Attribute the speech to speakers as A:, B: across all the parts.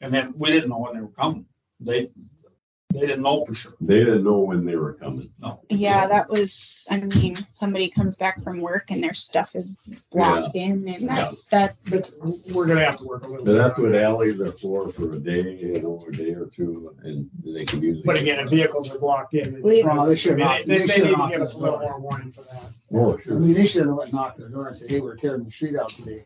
A: And then we didn't know when they were coming. They, they didn't know for sure.
B: They didn't know when they were coming.
A: No.
C: Yeah, that was, I mean, somebody comes back from work and their stuff is blocked in and that's, that,
D: But we're gonna have to work a little.
B: But
D: bit
B: that's
D: on
B: what
D: that.
B: alleys are for, for a day, you know, a day or two, and they can usually.
D: But again, if vehicles are blocked in.
E: We-
D: I mean,
F: Well, they should not,
D: They, they
F: they should
D: need to
F: not.
D: give us a little more warning for that.
B: Oh,
F: I
B: sure.
F: mean, they should have let knocked the door and said, hey, we're tearing the street out today.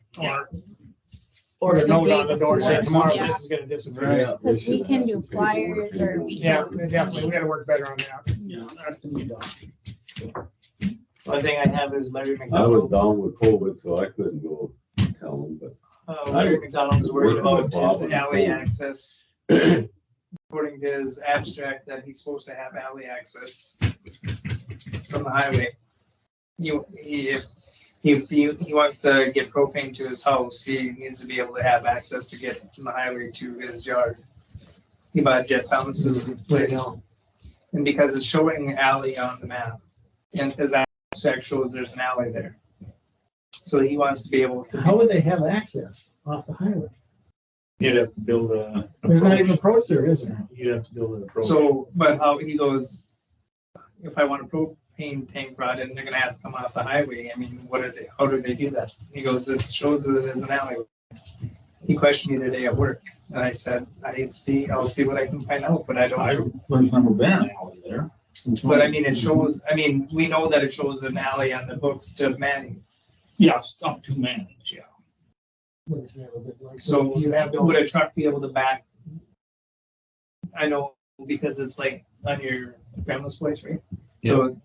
E: Or
D: Or, a
E: the
D: note
E: day
D: on the door, say
E: before.
D: tomorrow
E: Yeah.
D: this is gonna disappear.
B: Yeah, they
E: Because we
B: should
E: can
B: have
E: do
B: some paperwork.
E: flyers or we
D: Yeah,
E: Yeah.
D: definitely. We gotta work better on that.
A: Yeah.
G: One thing I have is
B: I
G: Larry
B: was
G: McDonald.
B: down with COVID, so I couldn't go tell them, but
G: Uh, Larry McDonald's
B: Working
G: worried
B: with
G: about
B: Bob
G: his
B: and
G: alley
B: Cole.
G: access. According to his abstract, that he's supposed to have alley access from the highway. He, he, if, if he, he wants to get propane to his house, he needs to be able to have access to get from the highway to his yard. He bought Jeff Thomas's place. And because it's showing an alley on the map, and as that shows, there's an alley there. So he wants to be able to.
H: How would they have access off the highway?
A: You'd have to build a.
H: There's not even
A: approach.
H: approach there, is there?
A: You'd have to build an approach.
G: So, but how he goes, if I want a propane tank brought in, they're gonna have to come off the highway. I mean, what are they, how do they do that? He goes, it shows that it is an alleyway. He questioned me today at work and I said, I see, I'll see what I can find out, but I
A: I,
G: don't.
A: there's never been an alley there.
G: But I mean, it shows, I mean, we know that it shows an alley on the books to Manning's.
A: Yeah, it's up to man, yeah.
G: So you have, would a truck be able to back? I know, because it's like on your grandma's place, right? So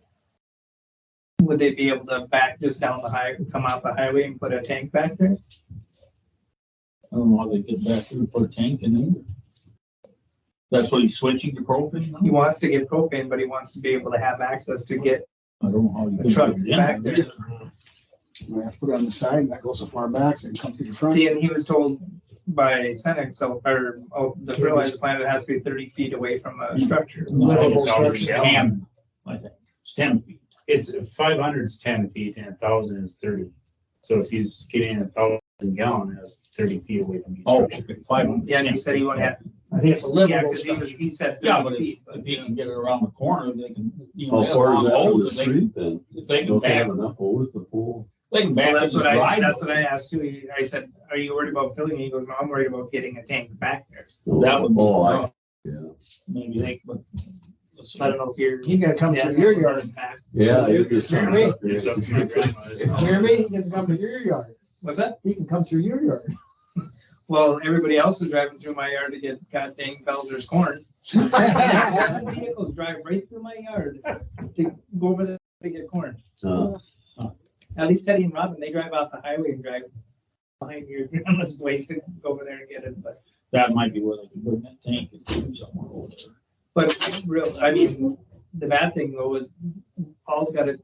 G: would they be able to back just down the high, come off the highway and put a tank back there?
A: I don't know how they get back there and put a tank in there. That's what he's switching to propane
G: He
A: now?
G: wants to get propane, but he wants to be able to have access to get,
A: I don't know how you.
G: The
A: can
G: truck
A: get it in
G: back there.
F: We have to put it on the side and that goes so far back, so it comes to the front.
G: see, and he was told by Senex, so, or, oh, the fertilizer plant, it has to be thirty feet away from
A: Mm.
G: a structure.
A: No, I think it's
D: Livable
A: already
D: structure.
A: ten, I think, it's ten feet.
I: It's five hundred's ten feet and a thousand is thirty. So if he's getting a thousand gallon, that's thirty feet away from each
B: Oh.
A: Oh.
I: structure.
A: Five hundred.
G: Yeah, and he said he would have,
D: I think it's a
G: yeah,
D: livable
G: because he was,
D: structure.
G: he said
A: Yeah, but
G: thirty
A: if,
G: feet. but-
A: if he can get it around the corner, they can, you know.
B: how
A: they have
B: far is
A: long
B: that from the
A: holes, they-
B: street then?
A: If they can
B: Don't they
A: back,
B: have enough holes to pull?
A: they can back
G: Well,
A: in
G: that's
A: his
G: what I, that's
A: driveway.
G: what I asked too. He- I said, are you worried about filling? He goes, no, I'm worried about getting a tank back there.
A: That would be
B: Oh, I-
A: rough.
B: Yeah,
A: Maybe they, but.
G: So I don't know if you're.
D: You gotta come
G: Yeah,
D: through your yard.
G: back.
B: yeah, you just.
F: Jeremy?
I: It's up to my grandma's.
F: Jeremy, he can come to your yard.
G: What's that?
F: He can come through your yard.
G: Well, everybody else is driving through my yard to get goddamn Belzer's corn. Seven Vehicles drive right through my yard to go over there to get corn.
B: Uh,
G: At least Teddy and Robin, they drive off the highway and drive behind your grandma's place to go over there and get it, but.
A: That might be where they can bring that tank and do somewhere over there.
G: But real, I mean, the bad thing though is Paul's got it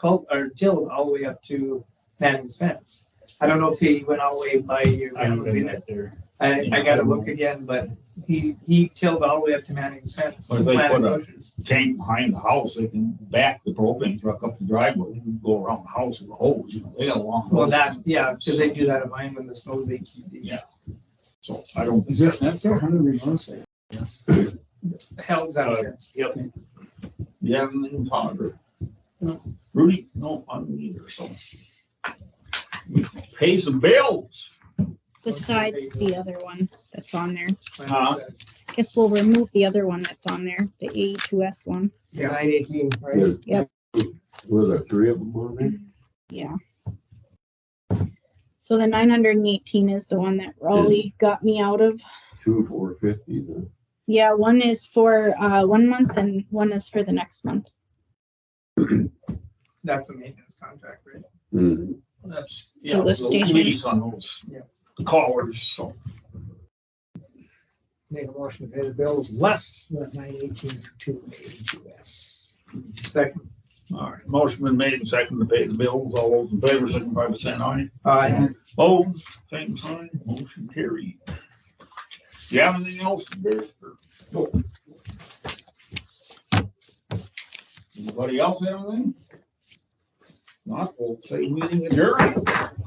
G: cult or tilled all the way up to Manning's fence. I don't know if he went all the way by your
I: I haven't
G: grandma's
I: been
G: either.
I: out there.
G: I, I gotta look again, but he, he tilled all the way up to Manning's fence.
A: Well, they
G: planted
A: put a-
G: bushes.
A: Tank behind the house, they can back the propane truck up the driveway, and go around the house with a hose, you know, they got a long.
G: Well,
A: hose.
G: that, yeah, cause they do that at mine when the snows they keep.
A: Yeah. So I don't.
F: Is that, that's their hundred remorse there? Yes.
G: Hell's out
I: Uh,
G: of fence.
I: Yep.
A: You haven't been talking to her. Rudy, no, I don't either, so. Pay some bills.
C: besides the other one that's on there,
A: Huh?
I: uh-huh.
G: uh,
C: I guess we'll remove the other one that's on there, the AE2S one.
G: Nine eighteen, right?
B: there's-
C: Yep.
B: Were there three of them on there?
C: Yeah. So the nine hundred and eighteen is the one that Raleigh got me out of.
B: Two, four fifty then.
C: Yeah, one is for, uh, one month and one is for the next month.
G: That's a maintenance contract, right?
B: Mhm.
A: That's, yeah.
C: The lift
A: the
C: station.
A: lease On those
G: Yeah.
A: callers, so.
D: Make a motion to pay the bills less than nine eighteen for two eighty-two S.
G: Second.
A: All right, motion been made and seconded to pay the bills. All those in favor, signify by saying aye.
G: Uh,
A: Oh, same sign, motion carried. You have anything else? Barry, or- no? Anybody else have anything? Not, we'll say meeting adjourned.